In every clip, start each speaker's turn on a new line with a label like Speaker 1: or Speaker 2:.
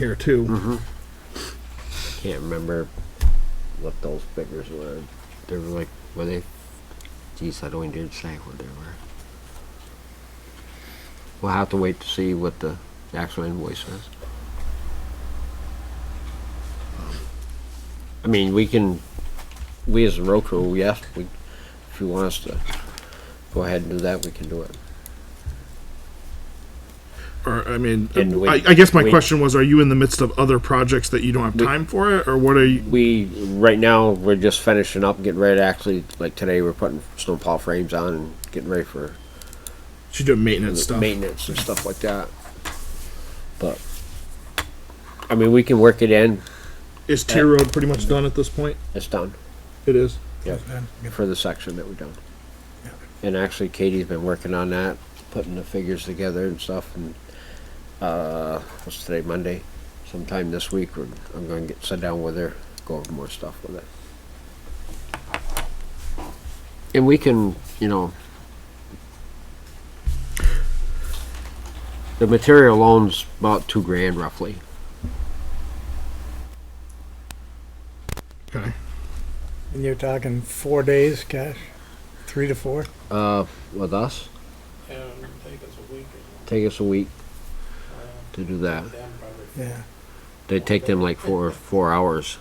Speaker 1: here too.
Speaker 2: Can't remember what those figures were. They were like, were they? Geez, I don't even did say what they were. We'll have to wait to see what the actual invoice says. Um, I mean, we can, we as a road crew, yes, we, if you want us to go ahead and do that, we can do it.
Speaker 1: Or, I mean,
Speaker 2: And we-
Speaker 1: I, I guess my
Speaker 2: we-
Speaker 1: question was, are you in the midst of other projects that you don't have
Speaker 2: We-
Speaker 1: time for it, or what are you?
Speaker 2: We, right now, we're just finishing up, getting ready to actually, like today, we're putting snowplow frames on and getting ready for
Speaker 1: She's doing maintenance
Speaker 2: the
Speaker 1: stuff.
Speaker 2: maintenance and stuff like that. But I mean, we can work it in.
Speaker 1: Is Tier
Speaker 2: Uh,
Speaker 1: Road pretty much done at this point?
Speaker 2: It's done
Speaker 1: It is.
Speaker 2: for the section that we've done. And actually, Katie's been working on that, putting the figures together and stuff. And uh, what's today? Monday. Sometime this week, we're, I'm going to get sit down with her, go over more stuff with it. And we can, you know, the material loan's about two grand roughly.
Speaker 1: Okay.
Speaker 3: And you're talking four days cash, three to four?
Speaker 2: Uh, with us,
Speaker 4: And Um, take us a week
Speaker 2: take us a week
Speaker 4: or uh,
Speaker 2: to do that.
Speaker 4: them probably.
Speaker 3: Yeah.
Speaker 2: They take them like four four hours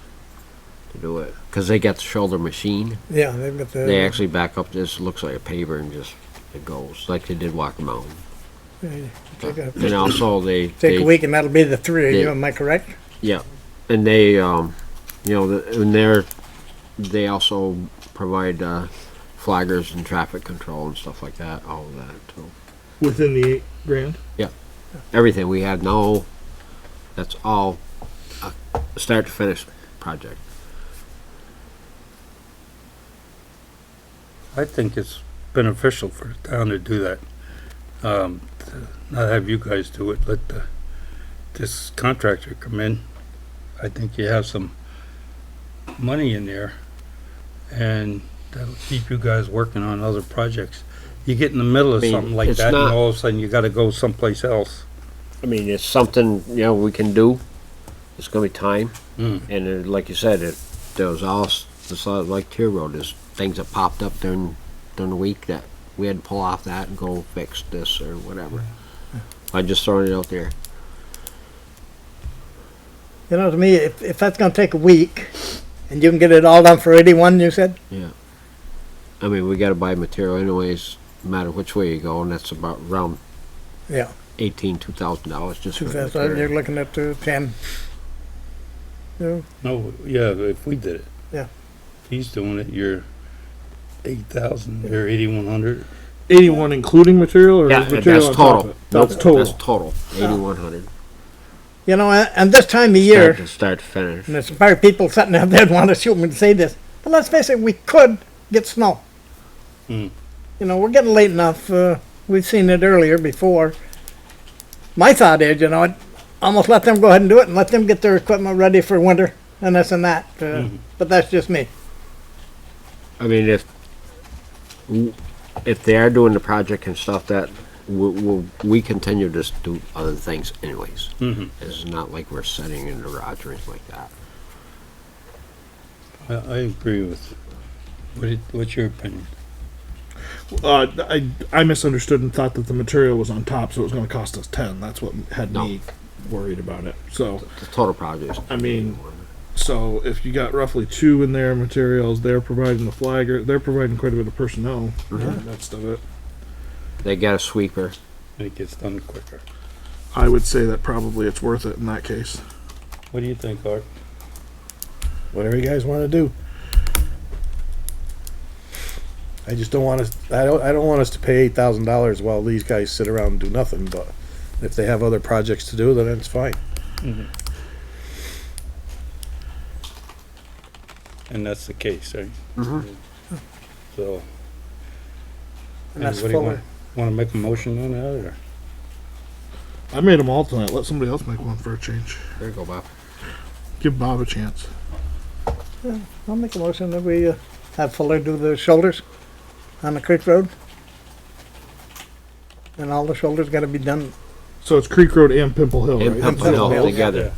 Speaker 2: to do it because they got the shoulder machine.
Speaker 3: Yeah, they've got the.
Speaker 2: They actually back up. This looks like a paver and just it goes like they did Walker Mountain.
Speaker 3: they Take
Speaker 2: And
Speaker 3: a,
Speaker 2: also they
Speaker 3: take
Speaker 2: they-
Speaker 3: a week and that'll be the three of
Speaker 2: they-
Speaker 3: you, am I correct?
Speaker 2: Yeah, and they um, you know, the, and they're they also provide uh, flaggers and traffic control and stuff like that. All of that too.
Speaker 1: Within the eight grand.
Speaker 2: Everything we had no. That's all. A start to finish project.
Speaker 5: I think it's beneficial for the town to do that. Um, to not have you guys do it, let the, this contractor come in. I think you have some money in there and that'll keep you guys working on other projects. You get in the middle of
Speaker 2: I mean,
Speaker 5: something like
Speaker 2: it's
Speaker 5: that and
Speaker 2: not-
Speaker 5: all of a sudden you gotta go someplace else.
Speaker 2: I mean, it's something, you know, we can do. It's gonna be time,
Speaker 5: Mm.
Speaker 2: and it, like you said, it, there was all, s- this, uh, like Tier Road, there's things that popped up during, during the week that we had to pull off that and go fix this or whatever. I just throwing it out there.
Speaker 3: You know, to me, if, if that's gonna take a week and you can get it all done for eighty-one, you said?
Speaker 2: I mean, we gotta buy material anyways, no matter which way you go, and that's about around
Speaker 3: Yeah,
Speaker 2: eighteen, two thousand dollars just for
Speaker 3: two
Speaker 2: the
Speaker 3: thousand, you're
Speaker 2: material.
Speaker 3: looking at uh, ten. No,
Speaker 5: No, yeah, if we did it.
Speaker 3: Yeah.
Speaker 5: If he's doing it, you're eight thousand, you're eighty-one hundred.
Speaker 1: Eighty-one including material or
Speaker 2: Yeah,
Speaker 1: is material
Speaker 2: that's
Speaker 1: on top
Speaker 2: total.
Speaker 1: of it?
Speaker 2: Nope,
Speaker 1: That's total.
Speaker 2: That's total, eighty-one hundred.
Speaker 3: You know, a- and this time of year,
Speaker 2: Start to finish.
Speaker 3: and there's probably people sitting out there that wanna shoot me to say this, but let's face it, we could get snow.
Speaker 5: Hmm.
Speaker 3: You know, we're getting late enough, uh, we've seen it earlier before. My thought is, you know, I'd almost let them go ahead and do it and let them get their equipment ready for winter and this and that, uh,
Speaker 5: Hmm.
Speaker 3: but that's just me.
Speaker 2: I mean, if if they are doing the project and stuff, that we, we, we continue to s- do other things anyways.
Speaker 5: Mm-hmm.
Speaker 2: It's not like we're sitting in the garage or anything like that.
Speaker 5: I, I agree with, what it, what's your opinion?
Speaker 1: Uh, I I misunderstood and thought that the material was on top, so it was going to cost us ten. That's what had
Speaker 2: No.
Speaker 1: me worried about it. So
Speaker 2: The total project. is
Speaker 1: I mean- so if you got roughly two in their materials, they're providing the flagger, they're providing quite a bit of personnel. and That's of it.
Speaker 2: they got a sweeper.
Speaker 5: and it gets done quicker.
Speaker 1: I would say that probably it's worth it in that case.
Speaker 5: What do you think, Art?
Speaker 6: whatever you guys want to do. I just don't want us. I don't. I don't want us to pay eight thousand dollars while these guys sit around and do nothing. But if they have other projects to do, then it's fine.
Speaker 5: And that's the case, right?
Speaker 2: Mhm.
Speaker 5: So.
Speaker 3: Mm-hmm. And that's
Speaker 5: anybody
Speaker 3: Fuller.
Speaker 5: Want to make a motion on that, or?
Speaker 1: I made them all tonight. Let somebody else make one for a change.
Speaker 2: There you go, Bob.
Speaker 1: Give Bob a chance.
Speaker 3: I'll make a motion that we, uh, have Fuller do the shoulders on the creek road. And all the shoulders gotta be done
Speaker 1: So it's Creek Road and Pimple Hill,
Speaker 2: And
Speaker 1: right?
Speaker 2: pump it all
Speaker 3: Hill.
Speaker 2: together.